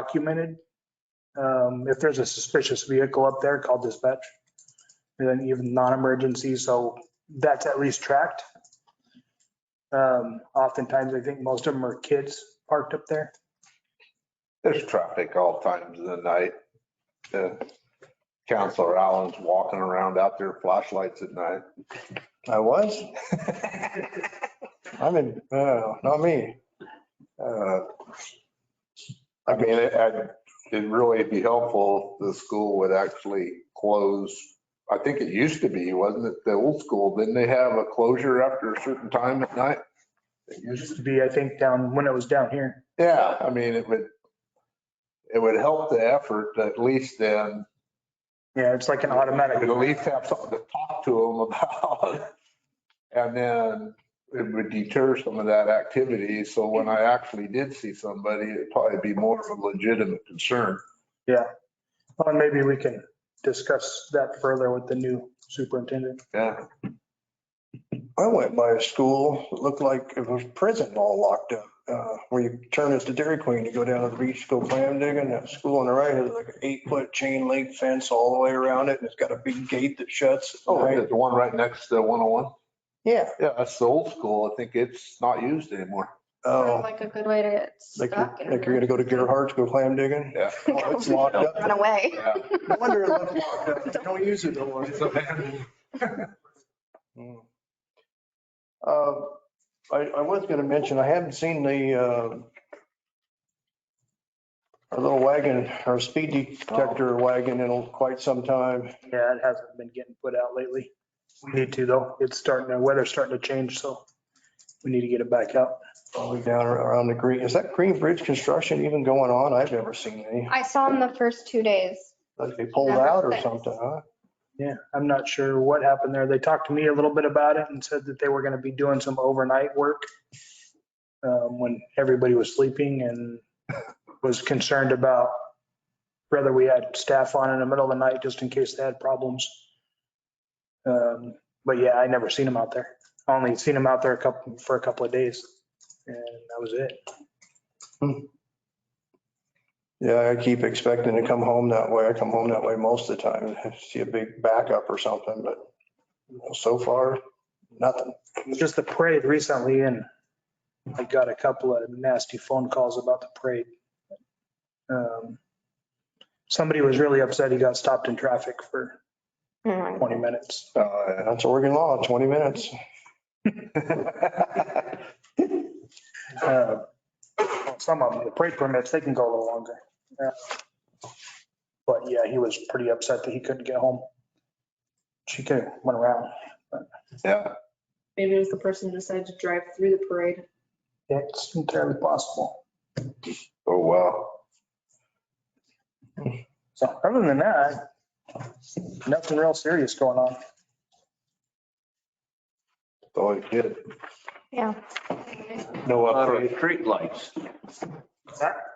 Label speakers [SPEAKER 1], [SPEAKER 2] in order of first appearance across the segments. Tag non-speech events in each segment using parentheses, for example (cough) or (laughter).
[SPEAKER 1] documented. Um, If there's a suspicious vehicle up there, call dispatch. And then even non-emergency, so that's at least tracked. Um, Oftentimes, I think most of them are kids parked up there.
[SPEAKER 2] There's traffic all times of the night. Uh, Counselor Allen's walking around out there flashlights at night.
[SPEAKER 3] I was? I'm in, uh, not me.
[SPEAKER 2] Uh, I mean, it, I- it'd really be helpful if the school would actually close. I think it used to be, wasn't it, the old school? Didn't they have a closure after a certain time at night? It used
[SPEAKER 1] Used to be, I think, down, when it was down here.
[SPEAKER 2] Yeah, I mean, it would, it would help the effort to at least then.
[SPEAKER 1] Yeah, it's like an
[SPEAKER 2] At
[SPEAKER 1] automatic.
[SPEAKER 2] least have something to talk to them (laughs) about. And then it would deter some of that activity. So when I actually did see somebody, it'd probably be more of a legitimate concern.
[SPEAKER 1] Well, maybe we can discuss that further with the new superintendent.
[SPEAKER 2] Yeah,
[SPEAKER 3] I went by a school, it looked like it was prison all locked up. Uh, where you turn as the Dairy Queen, you go down to the beach, go clam digging. That school on the right has like an eight foot chain link fence all the way around it. And it's got a big gate that shuts. at
[SPEAKER 2] oh,
[SPEAKER 3] night.
[SPEAKER 2] there's the one oh right next to 101.
[SPEAKER 3] Yeah.
[SPEAKER 2] Yeah, that's the old school. I think it's not used anymore.
[SPEAKER 3] Oh,
[SPEAKER 4] Sounds like a good way to get
[SPEAKER 3] like you're,
[SPEAKER 4] stuck. and
[SPEAKER 3] like you're gonna go to Gerhardt's, go clam digging.
[SPEAKER 2] Yeah.
[SPEAKER 4] (laughs)
[SPEAKER 3] Oh, it's locked up.
[SPEAKER 4] Run away.
[SPEAKER 2] yeah.
[SPEAKER 3] No wonder it looked locked up. They Don't use it no more.
[SPEAKER 2] It's abandoned.
[SPEAKER 3] Mm. Uh, I, I was gonna mention, I haven't seen the, uh, our little wagon, our speed detector wagon in quite some time.
[SPEAKER 1] Yeah, it hasn't been getting put out lately. We need to though. It's starting, the weather's starting to change, so we need to get it back out.
[SPEAKER 3] All the way down around the green, is that Green Bridge construction even going on? I've never seen any.
[SPEAKER 4] I saw him the first two days.
[SPEAKER 3] Like they pulled out or something, huh?
[SPEAKER 1] Yeah, I'm not sure what happened there. They talked to me a little bit about it and said that they were going to be doing some overnight work um, when everybody was sleeping and (laughs) was concerned about whether we had staff on in the middle of the night just in case they had problems. Um, But yeah, I never seen them out there. I Only seen them out there a couple, for a couple of days. And that was it.
[SPEAKER 3] Yeah, I keep expecting to come home that way. I come home that way most of the time, see a big backup or something, but you know, so far, nothing.
[SPEAKER 1] It was just the parade recently and I got a couple of nasty phone calls about the parade. Um, Somebody was really upset he got stopped in traffic for
[SPEAKER 4] Hmm.
[SPEAKER 1] 20 minutes.
[SPEAKER 2] Oh,
[SPEAKER 3] That's Oregon law, 20 minutes.
[SPEAKER 2] yeah.
[SPEAKER 1] Uh, Some of them, the parade permits, they can go a little longer. Uh, But yeah, he was pretty upset that he couldn't get home. She could, went around.
[SPEAKER 2] (laughs) Yeah,
[SPEAKER 5] Maybe it was the person who decided to drive through the parade.
[SPEAKER 1] It's entirely possible.
[SPEAKER 2] oh, wow.
[SPEAKER 1] So other than that, nothing real serious going on.
[SPEAKER 2] It's always good.
[SPEAKER 4] Yeah.
[SPEAKER 2] No
[SPEAKER 6] Our
[SPEAKER 2] upgrade.
[SPEAKER 6] street lights,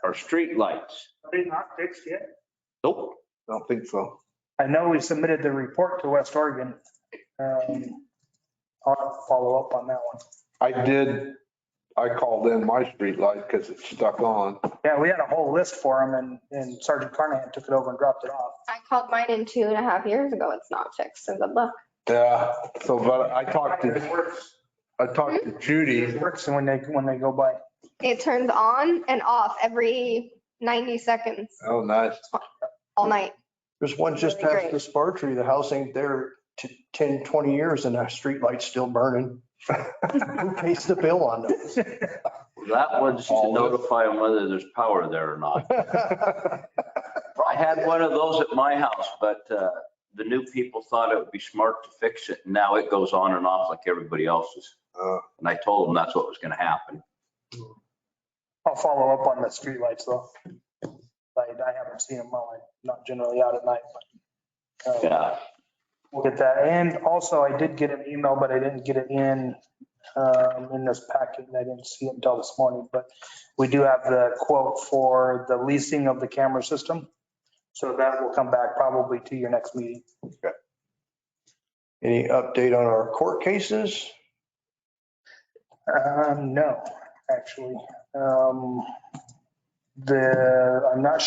[SPEAKER 6] our street lights.
[SPEAKER 1] They not fixed yet?
[SPEAKER 6] Nope.
[SPEAKER 2] Don't think so.
[SPEAKER 1] I know we submitted the report to West Oregon. Um, I'll follow up on that one.
[SPEAKER 2] I did, I called in my streetlight because it's stuck on.
[SPEAKER 1] Yeah, we had a whole list for them and, and Sergeant Carnahan took it over and dropped it off.
[SPEAKER 4] I called mine in two and a half years ago. It's not fixed, so good luck.
[SPEAKER 2] Yeah, so, but I talked to, I talked to Judy.
[SPEAKER 1] It works when they, when they go by.
[SPEAKER 4] It turns on and off every 90 seconds
[SPEAKER 2] Oh, (laughs) nice.
[SPEAKER 4] all night.
[SPEAKER 3] There's one just
[SPEAKER 4] Really
[SPEAKER 3] past
[SPEAKER 4] great.
[SPEAKER 3] the spar tree. The house ain't there t- 10, 20 years and that street light's still burning. (laughs) Who pays the bill on those?
[SPEAKER 6] That one's to notify them whether there's power there or not. I had one of those at my house, but uh, the new people thought it would be smart to fix it. Now it goes on and off like everybody else's.
[SPEAKER 2] Uh.
[SPEAKER 6] And I told them that's what was going to happen.
[SPEAKER 1] I'll follow up on the streetlights though. Like, I haven't seen them, well, I'm not generally out at night, but. uh,
[SPEAKER 6] Yeah.
[SPEAKER 1] We'll get that. And also I did get an email, but I didn't get it in, um, in this packet and I didn't see it until this morning. But we do have the quote for the leasing of the camera system. So that will come back probably to your next meeting.
[SPEAKER 3] Any update on our court cases?
[SPEAKER 1] Um, no, actually. Um, The, I'm not